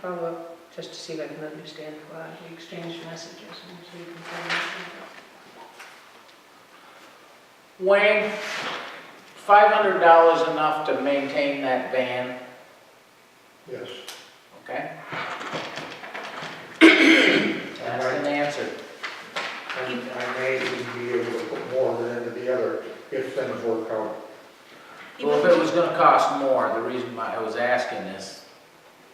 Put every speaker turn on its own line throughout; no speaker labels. follow up just to see if I can understand why we exchanged messages and so you can find out.
Wayne, five hundred dollars enough to maintain that van,
Yes.
okay? That's an answer.
And I may even be able to put more of it into the other if things work out.
Well, if it was gonna cost more, the reason why I was asking is,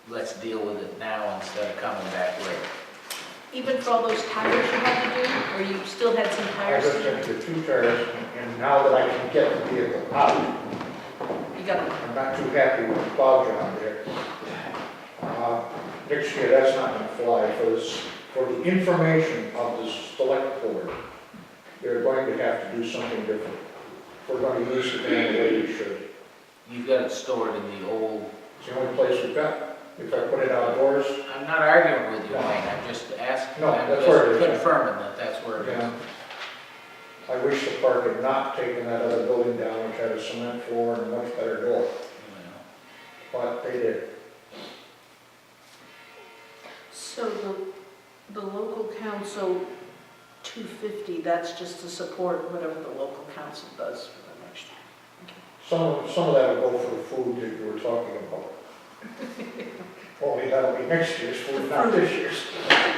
let's deal with it now instead of coming back later.
Even for all those tires you had to do, or you still had some
I
tires?
just
to
took the two tires and now that I can get the vehicle out,
do? You got,
I'm not too happy with the plow job there. Uh, Next year, that's not gonna fly for this, for the information of the select board. They're going to have to do something different. We're gonna use the van the way we should.
You've got it stored in the old,
It's the only place we've got. If I put it outdoors,
I'm not arguing with you, Wayne, I'm just asking,
No,
I'm
that's
just
where it is.
confirming that that's where it is.
yeah. I wish the park had not taken that other building down, which had a cement floor and a much better door,
You
but they did.
so the, the local council, two fifty, that's just to support whatever the local council does for the next year.
Some, some of that will go for the food that you were talking about. Only that'll be next year's food, not this year's.
know.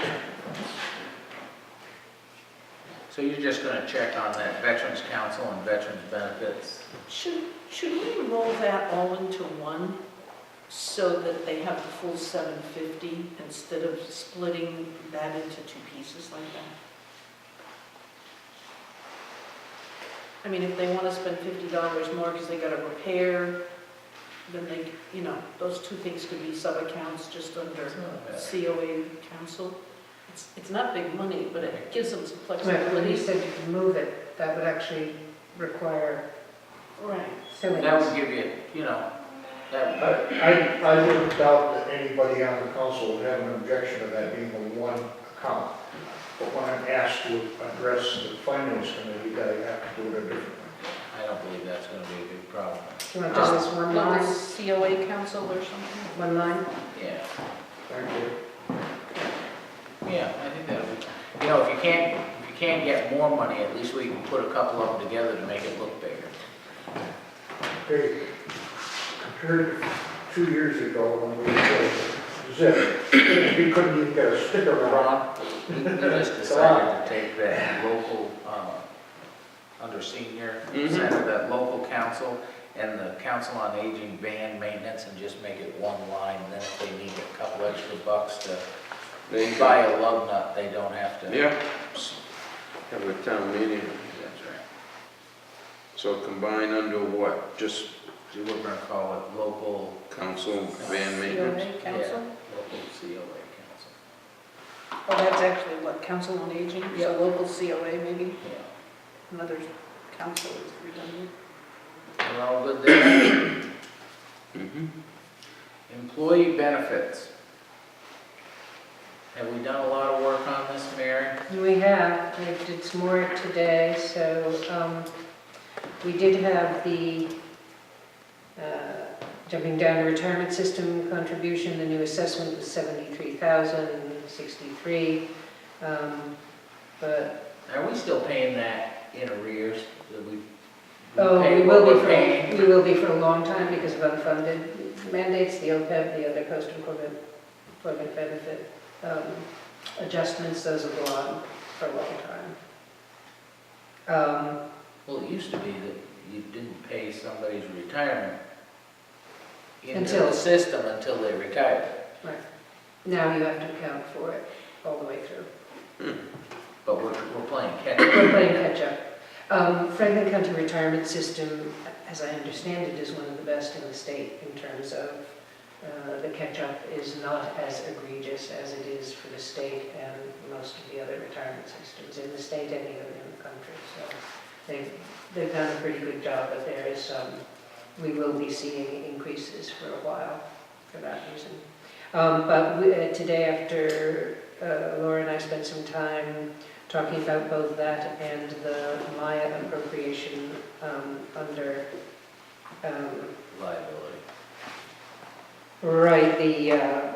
So you're just gonna check on that Veterans Council and Veterans Benefits?
Should, should we roll that all into one so that they have the full 750 instead of splitting that into two pieces like that? I mean, if they want to spend $50 more because they got to repair, then they, you know, those two things could be sub-accounts just under COA council. It's, it's not big money, but it gives them some
Right, when
flexibility.
he said you can move it, that would actually require
Right.
silliness.
That would give you, you know, that,
I, I- I wouldn't doubt that anybody on the council would have an objection to that being a one account. But when I'm asked to address the finance committee, I have to do it a different way.
I don't believe that's gonna be a big problem.
Do you want just this one
Local
line,
COA council or something?
one line?
Yeah,
Thank you.
yeah, I think that would, you know, if you can't, if you can't get more money, at least we can put a couple of them together to make it look bigger.
Okay, compared to two years ago when we were uh, zip, we couldn't even get a sticker on.
Ron, we we just decided to take that local, uh, under senior,
Mm-hmm.
center, that local council and the council on aging van maintenance and just make it one line, then if they need a couple extra bucks to
Thank you.
buy a lug nut, they don't have to.
Yeah. Have a town meeting.
That's right.
So combine under what? Just
So we're gonna call it local,
council van maintenance?
COA
yeah,
council?
local COA council.
Well, that's actually what, council on aging,
Yeah.
so local COA maybe,
Yeah,
another council is redundant.
we're all good there.
Mhm.
Mm-hmm. Employee benefits. Have we done a lot of work on this, Mary?
We have, we did some more today, so um, we did have the, uh, jumping down to retirement system contribution, the new assessment was 73,063. um, But,
Are we still paying that in arrears? That we- we
oh,
pay
we
what
will be
we're paying?
for, we will be for a long time because of unfunded mandates, the OPEB, the other post-employment employment benefit um, adjustments, those will go on for a long time. Um,
Well, it used to be that you didn't pay somebody's retirement into
Until-
the system until they retired.
Now you have to account for it all the way through.
But we're, we're playing catch up.
We're playing catch up. Um, Franklin County Retirement System, as I understand it, is one of the best in the state in terms of uh, the catch-up is not as egregious as it is for the state and most of the other retirement systems in the state and even in the country. So they've, they've done a pretty good job, but there is some, we will be seeing increases for a while for that reason. Um, But we- uh, today after uh, Laura and I spent some time talking about both that and the Maya appropriation um, under, um,
liability.
right, the uh,